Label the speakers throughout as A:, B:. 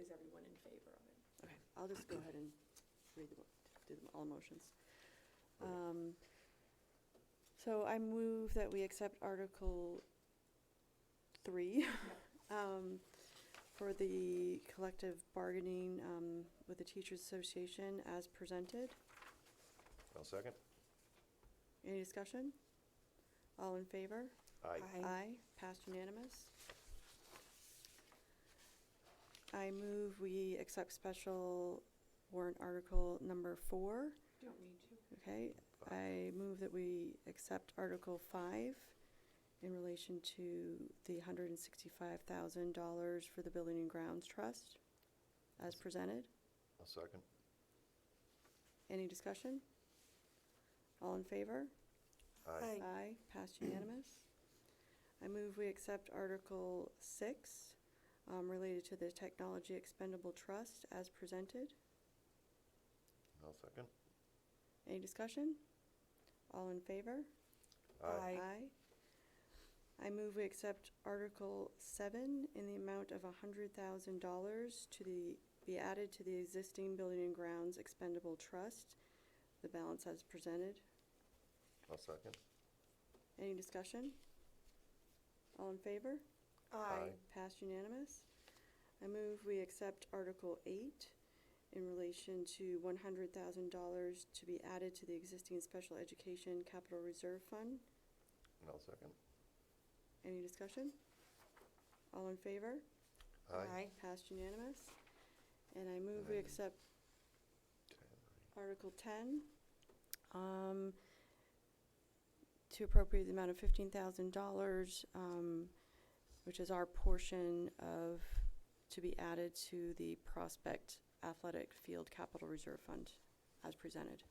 A: is everyone in favor of it?
B: Okay, I'll just go ahead and read the, mo- do the, all motions.
C: Okay.
B: Um, So I move that we accept Article Three, um, for the collective bargaining, um, with the Teachers Association as presented.
C: I'll second.
B: Any discussion? All in favor?
C: Aye.
B: Aye, passed unanimous. I move we accept special warrant article number four,
A: Don't need to.
B: okay? I move that we accept Article five in relation to the hundred and sixty-five thousand dollars for the Building and Grounds Trust as presented.
C: I'll second.
B: Any discussion? All in favor?
C: Aye.
B: Aye, passed unanimous. I move we accept Article six, um, related to the Technology Expendable Trust as presented.
C: I'll second.
B: Any discussion? All in favor?
C: Aye.
B: I move we accept Article seven in the amount of a hundred thousand dollars to the, be added to the existing Building and Grounds Expendable Trust, the balance as presented.
C: I'll second.
B: Any discussion? All in favor?
D: Uh,
C: Uh,
B: Passed unanimous. I move we accept Article eight in relation to one hundred thousand dollars to be added to the existing special education capital reserve fund.
C: And I'll second.
B: Any discussion? All in favor?
C: Aye.
B: Passed unanimous. And I move we
C: Aye.
B: accept
C: Ten.
B: Article ten, um, to appropriate the amount of fifteen thousand dollars, um, which is our portion of, to be added to the Prospect Athletic Field Capital Reserve Fund as presented.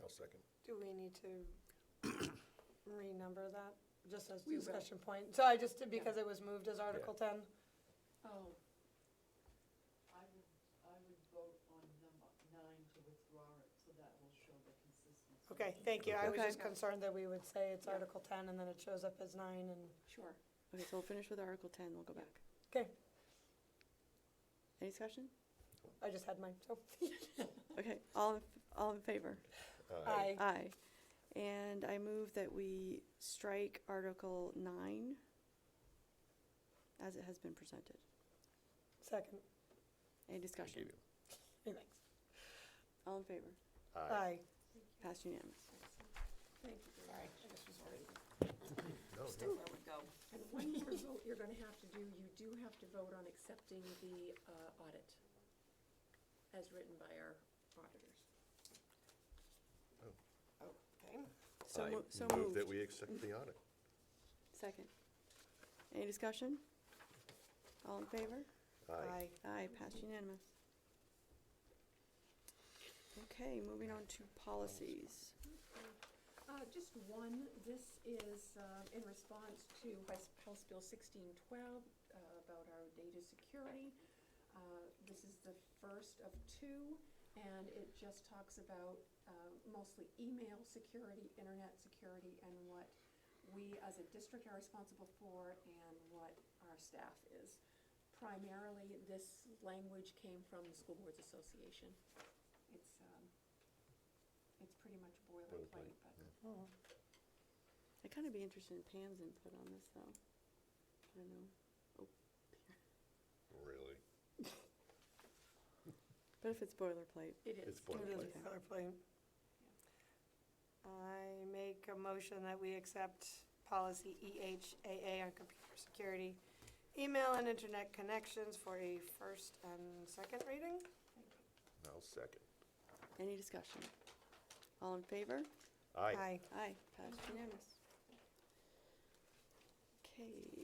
C: I'll second.
D: Do we need to renumber that, just as
A: We will.
D: discussion point? So I just, did because it was moved as Article ten?
E: Oh. I would, I would vote on number nine to withdraw it, so that will show the consistency.
D: Okay, thank you. I was
B: Okay.
D: just concerned that we would say it's
A: Yeah.
D: Article ten and then it shows up as nine and,
A: Sure.
B: Okay, so we'll finish with Article ten, we'll go back.
D: okay,
B: Any discussion?
D: I just had oh, mine, so.
B: Okay, all, in all in favor?
D: Aye.
B: Aye. And I move that we strike Article nine as it has been presented.
D: Second,
B: Any
C: I
B: discussion?
C: give you.
D: thanks.
B: All in favor?
C: Aye.
D: Aye.
B: Passed unanimous.
A: Thank you very much. This was already
C: No,
A: just
C: no.
A: where we go. And one more vote you're gonna have to do, you do have to vote on accepting the uh, audit as written by our auditors.
D: Okay.
B: So
C: I
B: mo- so
C: Move that
B: moved.
C: we accept the audit.
B: Second. Any discussion? All in favor?
C: Aye.
B: Aye, passed unanimous. Okay, moving on to policies.
A: Uh, just one, this is, uh, in response to House, House Bill sixteen twelve, uh, about our data security. Uh, this is the first of two, and it just talks about, uh, mostly email security, internet security, and what we as a district are responsible for and what our staff is. Primarily, this language came from the School Boards Association. It's, um, it's pretty much boilerplate,
C: Boilerplate,
A: but
C: yeah.
B: I'd kind of be interested in Pam's input on this, though. I don't know.
C: Really?
B: But if it's boilerplate,
A: it is.
C: It's
D: It is
C: boilerplate.
B: Okay.
D: boilerplate. I make a motion that we accept policy E EHAA on computer security, email and internet connections for a first and second reading.
C: I'll second.
B: any discussion? All in favor?
C: Aye.
B: Aye, passed unanimous. Okay,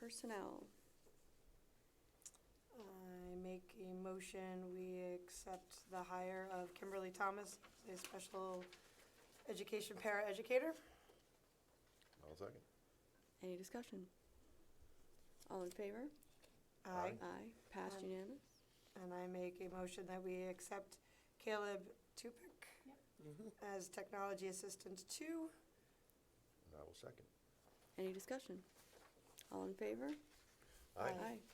B: personnel.
D: I make a motion, we accept the hire of Kimberly Thomas, a special education paraeducator.
C: I'll second.
B: Any discussion? All in favor?
C: Aye.
B: Aye, passed
D: Aye.
B: unanimous.
D: Uh, And I make a motion that we accept Caleb Tupick as technology assistant two.
C: And I will second.
B: Any discussion? All in favor?
C: Aye.
D: Aye.